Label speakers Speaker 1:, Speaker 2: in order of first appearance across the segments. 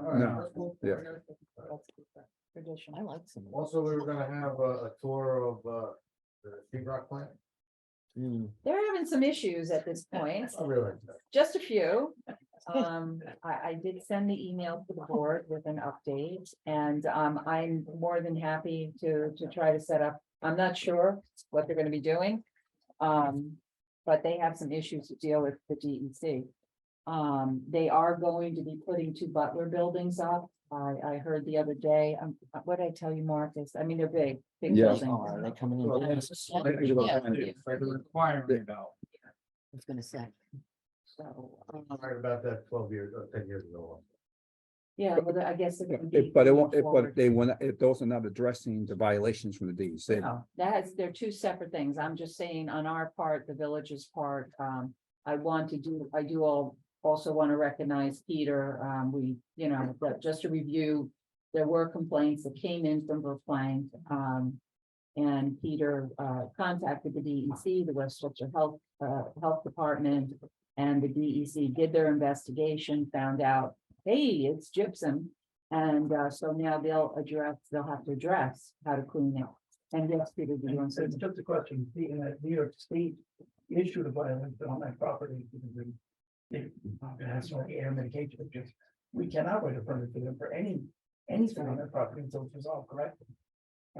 Speaker 1: No, yeah.
Speaker 2: Tradition, I like some.
Speaker 3: Also, we were gonna have a, a tour of, uh, the Sea Rock plant.
Speaker 1: Mm.
Speaker 2: They're having some issues at this point,
Speaker 3: I realize
Speaker 2: just a few. Um, I, I did send the email to the board with an update and, um, I'm more than happy to, to try to set up. I'm not sure what they're gonna be doing. Um, but they have some issues to deal with the DEC. Um, they are going to be putting two Butler buildings up. I, I heard the other day, um, what did I tell you, Marcus? I mean, they're big, big
Speaker 1: Yeah.
Speaker 2: buildings.
Speaker 4: Are they coming in?
Speaker 1: Mm-hmm.
Speaker 3: Well,
Speaker 4: I
Speaker 1: Requirement
Speaker 3: about.
Speaker 4: was gonna say.
Speaker 2: So, um,
Speaker 4: Oh.
Speaker 3: Right about that twelve years, uh, ten years ago.
Speaker 2: yeah, well, I guess. it would be
Speaker 1: If- But it won't,
Speaker 2: going
Speaker 1: if, but
Speaker 2: forward.
Speaker 1: they will not if those are not addressing the violations from the DEC.
Speaker 2: No, That's, they're two separate things. I'm just saying on our part, the village's part, um, I want to do, I do all. Also want to recognize Peter, um, we, you know, but just to review, there were complaints that came in from Brookline, um. And Peter, uh, contacted the DEC, the Westchester Health, uh, Health Department. And the DEC did their investigation, found out, hey, it's gypsum. And, uh, so now they'll address, they'll have to address how to clean it. And yes, Peter, do you want to?
Speaker 5: It's just a question, being that New York State issued a violation on that property. because they- It has no air mitigation, it's just, we cannot write a permit to them for any, anything on that property until it's resolved, correct?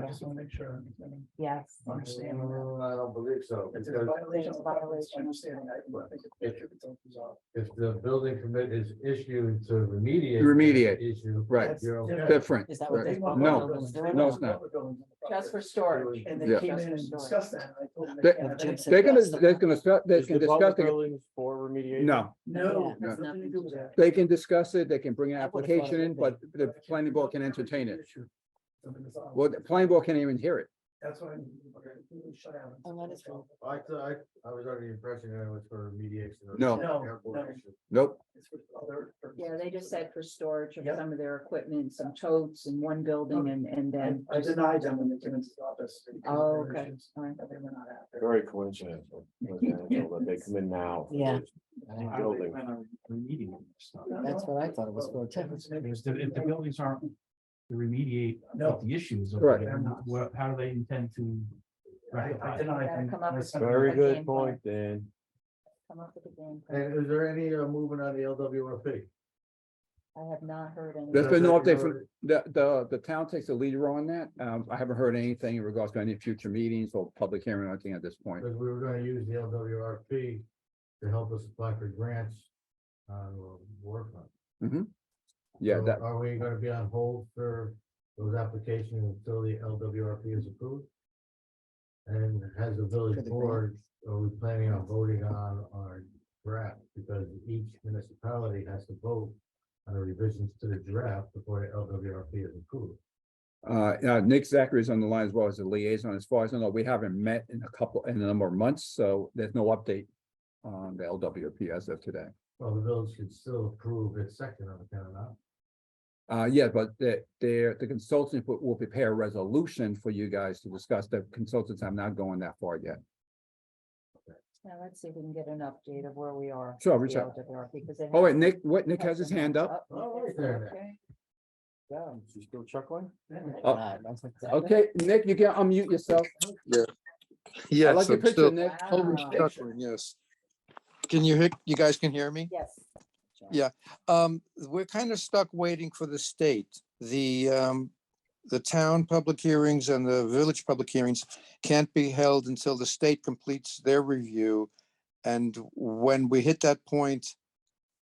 Speaker 5: I just wanna make sure, I mean,
Speaker 2: Yes.
Speaker 5: understand.
Speaker 3: Mm, I don't believe so,
Speaker 5: It's a
Speaker 3: because
Speaker 5: violation, of violation, understanding that, but I think it should be resolved.
Speaker 3: if the building permit is issued to remediate.
Speaker 1: Remediate.
Speaker 3: the Issue.
Speaker 1: Right,
Speaker 3: You're okay.
Speaker 1: different.
Speaker 4: Is that what they
Speaker 1: Right.
Speaker 4: want?
Speaker 1: No, no, it's not.
Speaker 2: Just for storage.
Speaker 5: And
Speaker 1: Yeah.
Speaker 5: they came
Speaker 2: Just
Speaker 5: in
Speaker 2: for
Speaker 5: and
Speaker 2: storage.
Speaker 5: discussed that, and I told them.
Speaker 1: They-
Speaker 5: they can't have anything.
Speaker 1: They're gonna, they're gonna, start- they
Speaker 6: Is
Speaker 1: can
Speaker 6: the
Speaker 1: discuss
Speaker 6: public
Speaker 1: it.
Speaker 6: buildings for remediation?
Speaker 1: No,
Speaker 5: No,
Speaker 1: Yeah.
Speaker 5: it has nothing to do with that.
Speaker 1: they can discuss it. They can bring an
Speaker 4: I would've thought
Speaker 1: application in, but the planning board can entertain it.
Speaker 5: Something is on.
Speaker 1: Well, the planning board can't even hear it.
Speaker 5: That's what I mean. we're gonna completely shut out.
Speaker 4: Oh, that is wrong.
Speaker 3: I, th- I, I was under the impression that it was for remediation. of
Speaker 1: No.
Speaker 5: No,
Speaker 3: airport
Speaker 5: no.
Speaker 3: issue.
Speaker 1: Nope.
Speaker 5: It's for other purposes.
Speaker 2: Yeah, they just said for storage of
Speaker 5: Yep.
Speaker 2: some of their equipment, some totes in one building and, and
Speaker 5: I
Speaker 2: then.
Speaker 5: I denied them when they came into the office. because of
Speaker 2: Oh,
Speaker 5: their
Speaker 2: okay.
Speaker 5: issues,
Speaker 2: all right.
Speaker 5: That they were not after.
Speaker 6: Very coincidental, coincidental that they come in now. for
Speaker 4: Yeah.
Speaker 6: this Building.
Speaker 7: Remediating stuff.
Speaker 4: That's what I thought it was for, too. Oh.
Speaker 7: Because the- if the buildings aren't to remediate
Speaker 5: No.
Speaker 7: the issues. of
Speaker 1: Correct.
Speaker 7: it, then what- How do they intend to
Speaker 5: I I
Speaker 7: rectify? it?
Speaker 5: denied
Speaker 2: Gotta
Speaker 5: them.
Speaker 2: come up
Speaker 5: I
Speaker 2: with
Speaker 5: sent them-
Speaker 6: Very
Speaker 2: Okay.
Speaker 6: good point, Dan.
Speaker 2: Come up with a game. plan.
Speaker 3: And is there any uh, movement on the LWRP?
Speaker 2: I have not heard any.
Speaker 1: There's been no update from, the, the, the town takes a leader on that. Um, I haven't heard anything in regards to any future meetings or public hearing or anything at this point.
Speaker 3: Because we were gonna use the LWRP to help us apply for grants. Uh, work on.
Speaker 1: Yeah,
Speaker 3: So
Speaker 1: that,
Speaker 3: Are we gonna be on hold for those applications until the LWRP is approved? And has the village
Speaker 4: For the
Speaker 3: board, are we planning on voting on our draft? Because each municipality has to vote on the revisions to the draft before the LWRP is approved.
Speaker 1: Uh, now, Nick Zachary is on the line as well as the liaison. As far as I know, we haven't met in a couple, in a number of months, so there's no update on the LWP as of today.
Speaker 3: Well, the village should still approve its second on the town, huh?
Speaker 1: Uh, yeah, but the, their, the consultant will, will prepare a resolution for you guys to discuss. The consultants, I'm not going that far yet.
Speaker 2: Now, let's see if we can get an update of where we are.
Speaker 1: Sure,
Speaker 2: with
Speaker 1: reach
Speaker 2: the
Speaker 1: out.
Speaker 2: LWRP, because they
Speaker 1: Oh, wait,
Speaker 2: have-
Speaker 1: Nick, what, Nick has his hand up?
Speaker 3: Oh, right there.
Speaker 2: Okay.
Speaker 6: Yeah, you still chuckling?
Speaker 1: Oh.
Speaker 4: God, that's exactly-
Speaker 1: Okay, Nick, you can unmute yourself. I like
Speaker 8: Yes,
Speaker 1: your
Speaker 8: I'm
Speaker 1: picture, uh,
Speaker 8: still
Speaker 1: Nick.
Speaker 8: I'm
Speaker 2: Wow.
Speaker 8: stuttering, yes. Can you hear, you guys can hear me?
Speaker 2: Yes.
Speaker 8: Um, we're kind of stuck waiting for the state. The, um, the town public hearings and the village public hearings can't be held until the state completes their review. And when we hit that point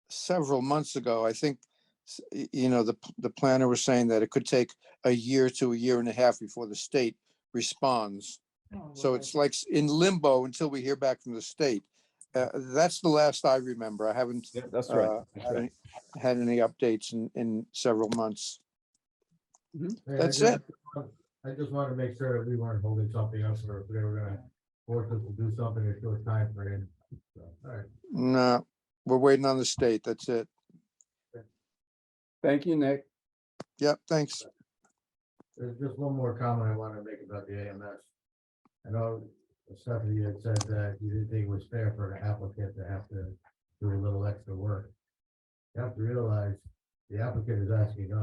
Speaker 8: several months ago, I think, s- y- you know, the, p- the planner was saying that it could take a year to a year and a half before the state responds.
Speaker 2: Oh,
Speaker 8: So
Speaker 2: Lord.
Speaker 8: it's like s- in limbo until we hear back from the state. Uh, that's the last I remember. I haven't
Speaker 1: That's
Speaker 8: uh, had any- had any updates in, in several months.
Speaker 3: Hey, I
Speaker 8: That's
Speaker 3: just- I just wanted to make sure that we weren't holding something up or if they were gonna force us to do something in a short time frame. So, All right.
Speaker 8: No, we're waiting on the state. That's it.
Speaker 1: Thank you, Nick.
Speaker 8: Yep, thanks.
Speaker 3: There's just one more comment I wanted to make about the AMS. I know Stephanie had said that you didn't think it was fair for an applicant to have to do a little extra work. You have to realize The applicant is asking us